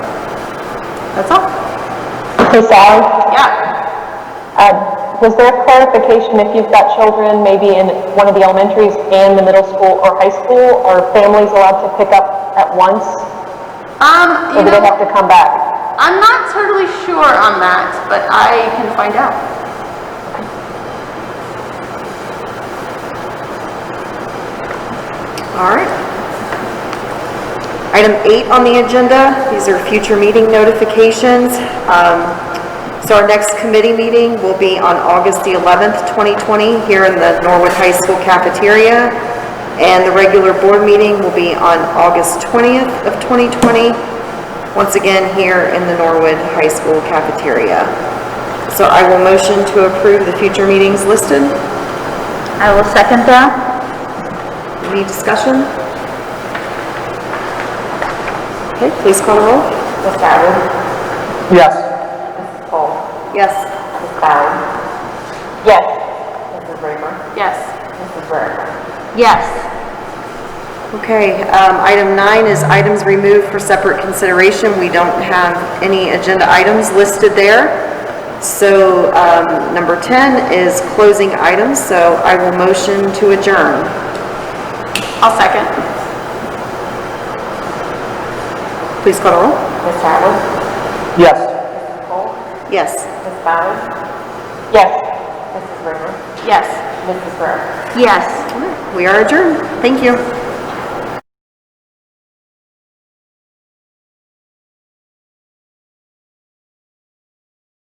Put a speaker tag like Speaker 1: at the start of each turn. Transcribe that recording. Speaker 1: That's all.
Speaker 2: Hey, Sally,
Speaker 1: Yeah.
Speaker 2: um, was there clarification if you've got children maybe in one of the elementaries and the middle school or high school? Are families allowed to pick up at once
Speaker 1: Um,
Speaker 2: or
Speaker 1: you
Speaker 2: do they have
Speaker 1: know,
Speaker 2: to come back?
Speaker 1: I'm not totally sure on that, but I can find out.
Speaker 3: All right. Item eight on the agenda, these are future meeting notifications. Um, So our next committee meeting will be on August the 11th, 2020, here in the Norwood High School cafeteria. And the regular board meeting will be on August 20th of 2020, once again here in the Norwood High School cafeteria. So I will motion to approve the future meetings listed.
Speaker 4: I will second that.
Speaker 3: Any discussion? Okay, please call the roll.
Speaker 2: Ms. Allen?
Speaker 5: Yes.
Speaker 2: Mrs. Cole?
Speaker 3: Yes.
Speaker 2: Ms. Bowden? Yes. Mrs. Raymer?
Speaker 1: Yes.
Speaker 2: Mrs. Rarick?
Speaker 4: Yes.
Speaker 3: Okay, um, item nine is items removed for separate consideration. We don't have any agenda items listed there. So, um, number 10 is closing items, so I will motion to adjourn.
Speaker 1: I'll second.
Speaker 3: Please call the roll.
Speaker 2: Ms. Allen?
Speaker 5: Yes.
Speaker 3: Yes.
Speaker 2: Ms. Bowden? Yes. Mrs. Raymer?
Speaker 1: Yes.
Speaker 2: Mrs. Rarick?
Speaker 4: Yes.
Speaker 3: We are adjourned. Thank you.